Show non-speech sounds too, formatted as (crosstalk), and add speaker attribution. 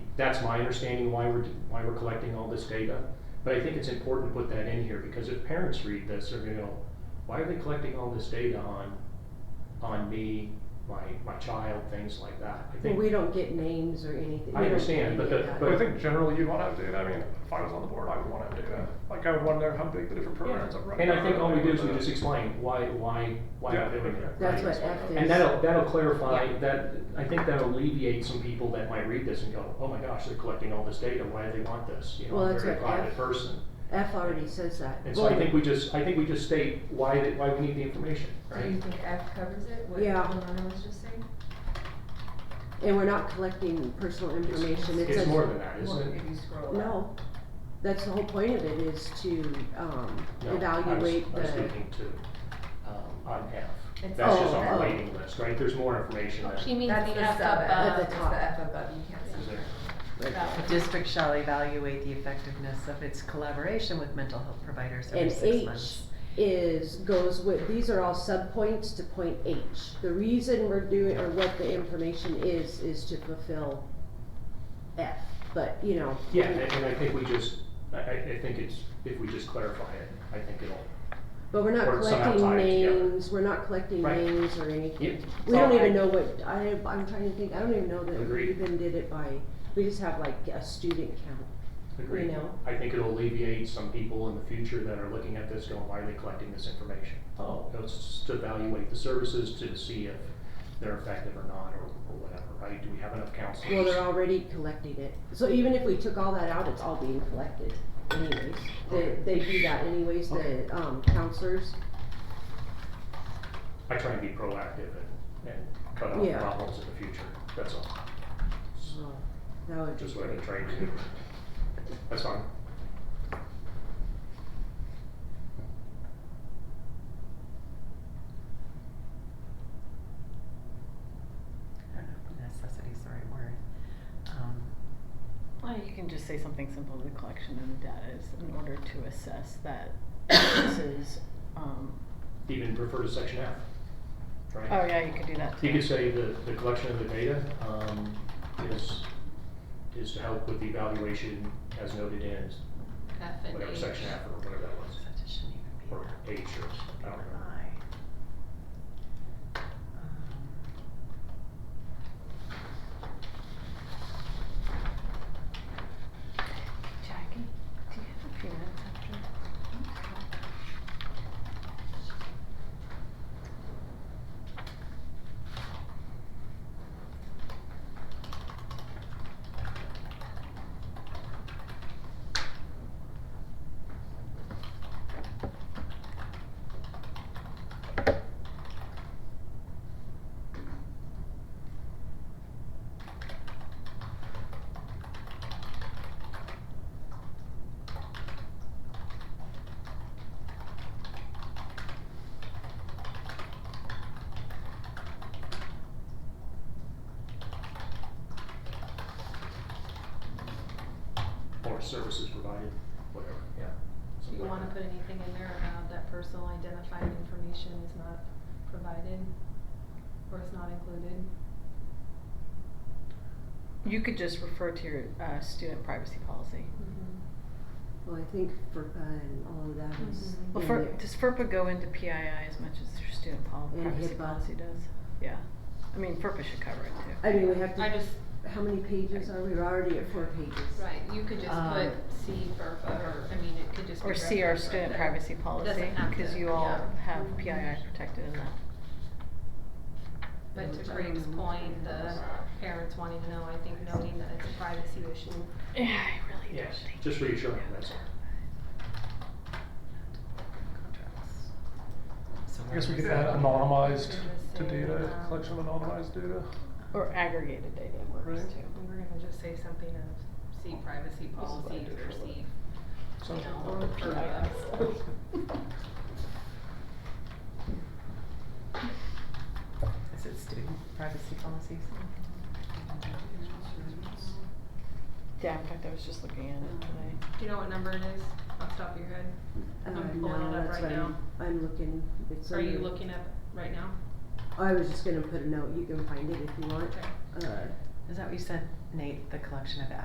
Speaker 1: that's my understanding why we're, why we're collecting all this data. But I think it's important to put that in here, because if parents read this, they're gonna go, why are they collecting all this data on, on me, my, my child, things like that? I
Speaker 2: Well,
Speaker 1: think
Speaker 2: we don't get names or anything.
Speaker 1: I
Speaker 2: We don't
Speaker 1: understand,
Speaker 2: get
Speaker 1: but
Speaker 2: any
Speaker 1: the- but-
Speaker 2: of that.
Speaker 3: But I think generally you'd want to have data, I mean, if I was on the board, I would want to have data, like I would want to know how big the different programs are running.
Speaker 1: And I think all we do is we
Speaker 3: Uh,
Speaker 1: just explain why, why, why
Speaker 3: Yeah.
Speaker 1: we're doing it.
Speaker 2: That's
Speaker 1: right?
Speaker 2: what F is.
Speaker 1: And that'll, that'll clarify,
Speaker 2: Yeah.
Speaker 1: that, I think that'll alleviate some people that might read this and go, oh my gosh, they're collecting all this data, why do they want this? You know,
Speaker 2: Well,
Speaker 1: I'm a
Speaker 2: that's
Speaker 1: very
Speaker 2: what
Speaker 1: private
Speaker 2: F-
Speaker 1: person.
Speaker 2: F already says that.
Speaker 1: And so I think we just, I think we just state why, that- why we need the information,
Speaker 4: Do you
Speaker 1: right?
Speaker 4: think F covers it, what
Speaker 2: Yeah.
Speaker 4: Lorna was just saying?
Speaker 2: And we're not collecting personal information. It
Speaker 1: It's
Speaker 2: says,
Speaker 1: more than that, isn't
Speaker 4: Well,
Speaker 1: it?
Speaker 4: If you scroll up.
Speaker 2: no, that's the whole point of it is to, um,
Speaker 1: No, I was-
Speaker 2: evaluate
Speaker 1: I was
Speaker 2: the,
Speaker 1: thinking to, um, on F.
Speaker 4: It's
Speaker 1: That's
Speaker 2: all
Speaker 1: just on
Speaker 2: about-
Speaker 1: our waiting list, right? There's more information that
Speaker 5: She
Speaker 1: is
Speaker 5: means
Speaker 4: That's the
Speaker 5: the F
Speaker 4: sub F,
Speaker 2: the
Speaker 4: it's
Speaker 5: above.
Speaker 2: top.
Speaker 4: the F above, you can't see.
Speaker 1: there.
Speaker 5: That
Speaker 6: The
Speaker 5: one.
Speaker 6: district shall evaluate the effectiveness of its collaboration with mental health providers every
Speaker 2: And
Speaker 6: six
Speaker 2: H
Speaker 6: months.
Speaker 2: is, goes with, these are all subpoints to point H. The reason we're doing, or what the information is, is to fulfill F, but, you know.
Speaker 1: Yeah, and, and I think we just, I, I, I think it's, if we just clarify it, I think it'll,
Speaker 2: But we're not
Speaker 1: Or somehow
Speaker 2: collecting
Speaker 1: tied together.
Speaker 2: names, we're not collecting
Speaker 1: Right.
Speaker 2: names or anything.
Speaker 1: yeah.
Speaker 2: We don't even know what, I, I'm trying to think, I don't even know that we
Speaker 1: Agreed.
Speaker 2: even did it by, we just have like a student count.
Speaker 1: Agreed.
Speaker 2: you know.
Speaker 1: I think it'll alleviate some people in the future that are looking at this going, why are they collecting this information? Oh, it's to evaluate the services to see if they're effective or not, or, or whatever, right? Do we have enough counselors?
Speaker 2: Well, they're already collecting it, so even if we took all that out, it's all being collected anyways. They,
Speaker 1: Okay.
Speaker 2: they do that anyways, the, um, counselors,
Speaker 1: I try and be proactive and, and cut off
Speaker 2: Yeah.
Speaker 1: problems in the future, that's all,
Speaker 2: so that would be
Speaker 1: just what
Speaker 2: great.
Speaker 1: I'm trying to do. That's fine.
Speaker 6: I don't know if necessity is the right word. Um,
Speaker 5: Well, you can just say something simple, the collection of the data is in order to assess that
Speaker 2: (coughs)
Speaker 5: this is, um,
Speaker 1: Even refer to section F, right?
Speaker 5: oh yeah, you could do that too.
Speaker 1: You could say the, the collection of the data, um, is, is to help with the evaluation as noted in
Speaker 4: F and
Speaker 1: whatever
Speaker 4: H.
Speaker 1: section F or whatever that was,
Speaker 6: Such it shouldn't even be
Speaker 1: or
Speaker 6: that.
Speaker 1: H
Speaker 6: Should
Speaker 1: or,
Speaker 6: be
Speaker 1: I don't remember.
Speaker 6: I. Um,
Speaker 5: Jackie, do you have a few minutes after?
Speaker 1: Or services provided, whatever, yeah.
Speaker 4: Do
Speaker 1: something
Speaker 4: you
Speaker 1: like
Speaker 4: wanna
Speaker 1: that.
Speaker 4: put anything in there about that personal identifying information is not provided? Or is not included?
Speaker 5: You could just refer to your, uh, student privacy policy.
Speaker 2: Well, I think for, uh, and all of that is.
Speaker 4: Mhm.
Speaker 5: Well,
Speaker 2: in
Speaker 5: for,
Speaker 2: there.
Speaker 5: does FERPA go into PII as much as your student pol-
Speaker 2: And
Speaker 5: privacy
Speaker 2: HIPAA.
Speaker 5: policy does? Yeah, I mean, FERPA should cover it too.
Speaker 2: I mean, we have to.
Speaker 4: I just,
Speaker 2: How many pages are we? We're already at four pages.
Speaker 4: right, you could just
Speaker 6: Um,
Speaker 4: put C FERPA, or, I mean, it could just be
Speaker 5: Or see our
Speaker 4: referenced right
Speaker 5: student
Speaker 4: there.
Speaker 5: privacy policy,
Speaker 4: Doesn't have
Speaker 5: cause
Speaker 4: to,
Speaker 5: you all
Speaker 4: yeah.
Speaker 5: have PII protected in that.
Speaker 4: But to Craig's point, the parents wanting to know, I think noting that it's a privacy issue
Speaker 5: Yeah, I really don't
Speaker 1: Yes,
Speaker 5: think.
Speaker 1: just reassuring, that's all.
Speaker 6: Contracts. So
Speaker 3: I guess we
Speaker 6: where
Speaker 3: could
Speaker 6: is
Speaker 3: add
Speaker 6: that?
Speaker 3: anonymized to
Speaker 4: Same,
Speaker 3: data,
Speaker 4: um,
Speaker 3: collection of anonymized data.
Speaker 5: Or aggregated data works
Speaker 3: Right.
Speaker 2: Mm-hmm.
Speaker 5: too.
Speaker 4: We were gonna just say something of see privacy
Speaker 3: what I
Speaker 4: policies
Speaker 3: did
Speaker 4: or
Speaker 3: for
Speaker 4: see, you
Speaker 3: something
Speaker 4: know,
Speaker 3: like
Speaker 4: or
Speaker 3: that.
Speaker 4: PII.
Speaker 3: (laughs)
Speaker 6: Is it student privacy policies?
Speaker 5: Yeah, in fact, I was just looking at it today.
Speaker 4: Do you know what number it is off the top of your head?
Speaker 2: Uh,
Speaker 4: I'm
Speaker 2: no,
Speaker 4: pulling it up
Speaker 2: that's
Speaker 4: right
Speaker 2: what I'm-
Speaker 4: now.
Speaker 2: I'm looking. It's
Speaker 4: Are you
Speaker 2: under-
Speaker 4: looking up right now?
Speaker 2: I was just gonna put a note. You can find it if you want.
Speaker 4: Okay.
Speaker 2: Uh,
Speaker 6: Is that what you said, Nate, the collection of